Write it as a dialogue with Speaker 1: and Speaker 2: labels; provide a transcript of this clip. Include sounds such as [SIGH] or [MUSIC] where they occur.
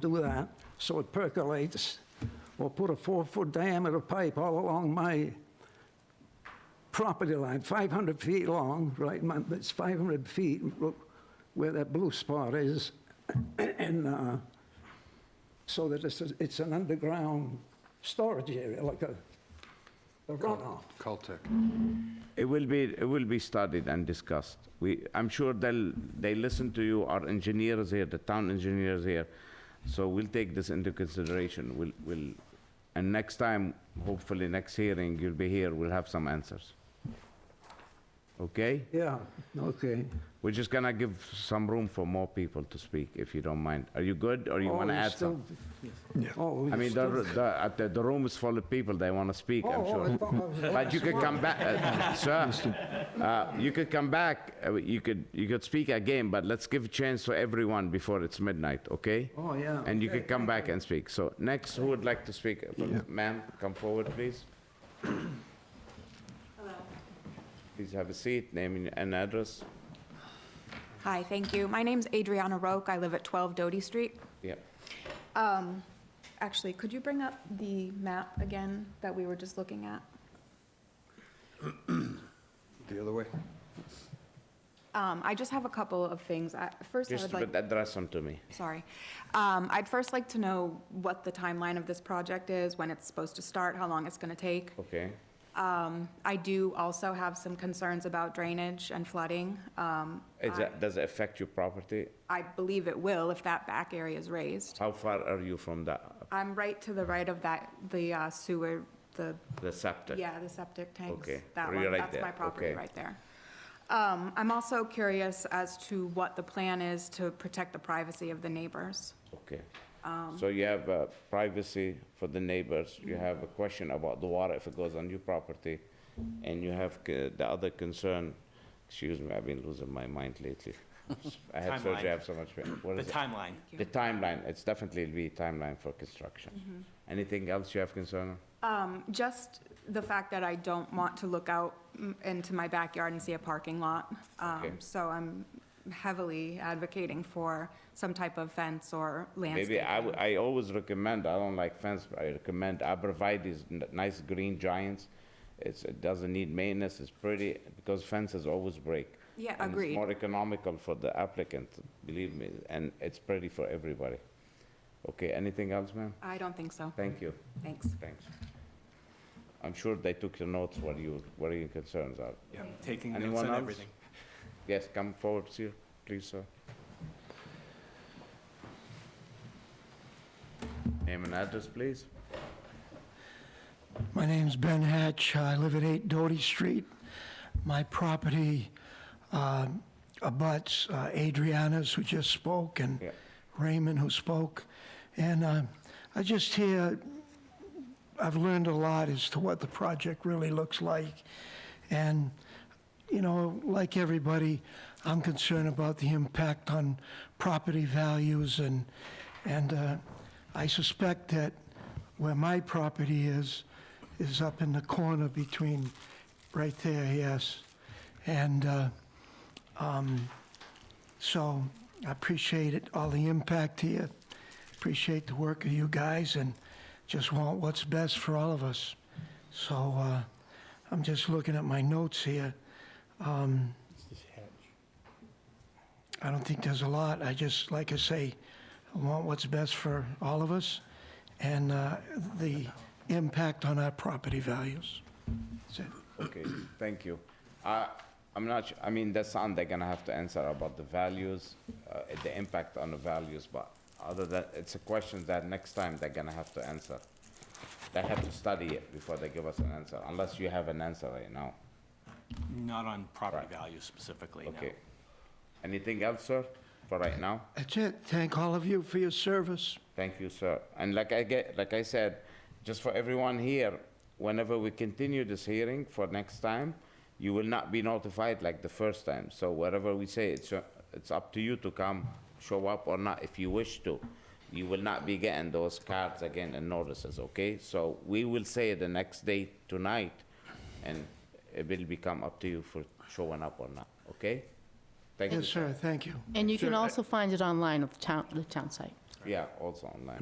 Speaker 1: do that, so it percolates. Or put a four-foot diameter pipe all along my property line, 500 feet long, right, my- it's 500 feet where that blue spot is, [COUGHS] and uh, so that it's, it's an underground storage area, like a a runoff.
Speaker 2: Caltech.
Speaker 3: It will be, it will be studied and discussed. We, I'm sure they'll, they listen to you, our engineers here, the town engineers here. So we'll take this into consideration. We'll, we'll, and next time, hopefully next hearing, you'll be here, we'll have some answers. Okay?
Speaker 1: Yeah, okay.
Speaker 3: We're just gonna give some room for more people to speak, if you don't mind. Are you good, or you wanna add some?
Speaker 1: Oh,
Speaker 3: I mean, the, r- the, at the, the room is full of people, they wanna speak, I'm
Speaker 1: Oh, I
Speaker 3: sure.
Speaker 1: thought I was the
Speaker 3: But you
Speaker 1: last
Speaker 3: could
Speaker 1: one.
Speaker 3: come back, uh, sir, uh, you could come back, uh, you could, you could speak again, but let's give a chance for everyone before it's midnight, okay?
Speaker 1: Oh, yeah.
Speaker 3: And you could come back and speak. So next, who would like to speak? Uh, Ma'am, come forward,
Speaker 4: [COUGHS]
Speaker 3: please. Please have a seat, name and address.
Speaker 4: Hi, thank you. My name's Adriana Roque. I live at 12 Doty Street.
Speaker 3: Yeah.
Speaker 4: Um, Actually, could you bring up the map again that we were just looking at?
Speaker 2: The other way?
Speaker 4: Um, I just have a couple of things. I- First, I
Speaker 3: Just
Speaker 4: would like,
Speaker 3: but address them to me.
Speaker 4: sorry. Um, I'd first like to know what the timeline of this project is, when it's supposed to start, how long it's going to take.
Speaker 3: Okay.
Speaker 4: Um, I do also have some concerns about drainage and flooding. Um,
Speaker 3: Is that, does it affect your property?
Speaker 4: I believe it will if that back area is raised.
Speaker 3: How far are you from the,
Speaker 4: I'm right to the right of that, the uh, sewer, the
Speaker 3: the septic?
Speaker 4: Yeah, the septic tanks.
Speaker 3: Okay,
Speaker 4: That
Speaker 3: you're
Speaker 4: one,
Speaker 3: right
Speaker 4: that's
Speaker 3: there,
Speaker 4: my property
Speaker 3: okay.
Speaker 4: right there. Um, I'm also curious as to what the plan is to protect the privacy of the neighbors.
Speaker 3: Okay.
Speaker 5: Um,
Speaker 3: So you have uh, privacy for the neighbors,
Speaker 5: Mm-hmm.
Speaker 3: you have a question about the water if it goes on your property, and you have c- the other concern, excuse me, I've been losing my mind
Speaker 5: [LAUGHS]
Speaker 3: lately. I had surgery, I
Speaker 5: Timeline.
Speaker 3: have so much pain. What
Speaker 5: The
Speaker 3: is it?
Speaker 5: timeline.
Speaker 3: The timeline, it's definitely be timeline for construction.
Speaker 5: Mm-hmm.
Speaker 3: Anything else you have concern? on?
Speaker 4: Um, Just the fact that I don't want to look out mm, into my backyard and see a parking lot. Um,
Speaker 3: Okay.
Speaker 4: So I'm heavily advocating for some type of fence or
Speaker 3: Maybe,
Speaker 4: landscape.
Speaker 3: I, w- I always recommend, I don't like fence, but I recommend arborvitae's, n- nice green giants. It's, it doesn't need maintenance, it's pretty, because fences always break.
Speaker 4: Yeah,
Speaker 3: And it's
Speaker 4: agreed.
Speaker 3: more economical for the applicant, believe me, and it's pretty for everybody. Okay, anything else, ma'am?
Speaker 4: I don't think so.
Speaker 3: Thank you,
Speaker 4: Thanks.
Speaker 3: thanks. I'm sure they took your notes, what you, what your concerns are.
Speaker 5: Yeah, Taking notes
Speaker 3: Anyone
Speaker 5: on
Speaker 3: else?
Speaker 5: everything.
Speaker 3: Yes, come forward, sir, please, sir. Name and address, please.
Speaker 6: My name's Ben Hatch. I live at 8 Doty Street. My property um, abuts uh, Adriana's, who just spoke, and
Speaker 3: Yeah.
Speaker 6: Raymond, who spoke. And uh, I just hear, I've learned a lot as to what the project really looks like. And, you know, like everybody, I'm concerned about the impact on property values and, and uh, I suspect that where my property is, is up in the corner between, right there, yes. And, uh, so I appreciate it, all the impact here. Appreciate the work of you guys and just want what's best for all of us. So uh, I'm just looking at my notes here. Um, I don't think there's a lot. I just, like I say, I want what's best for all of us and uh, the impact on our property values. That's it.
Speaker 3: Okay, thank you. I- I'm not, su- I mean, that's something they're gonna have to answer about the values, uh, the impact on the values, but other than, it's a question that next time they're gonna have to answer. They have to study it before they give us an answer, unless you have an answer right now.
Speaker 5: Not on property
Speaker 3: Right.
Speaker 5: value specifically, no.
Speaker 3: Okay. Anything else, sir, for right now?
Speaker 6: That's it. Thank all of you for your service.
Speaker 3: Thank you, sir. And like I get, like I said, just for everyone here, whenever we continue this hearing for next time, you will not be notified like the first time. So whatever we say, it's, uh, it's up to you to come, show up or not, if you wish to. You will not be getting those cards again and notices, okay? So we will say the next day tonight, and it will become up to you for showing up or not, okay? Thank you.
Speaker 6: Yes, sir. Thank you.
Speaker 7: And you can also find it online of the town, the town site.
Speaker 3: Yeah, also online.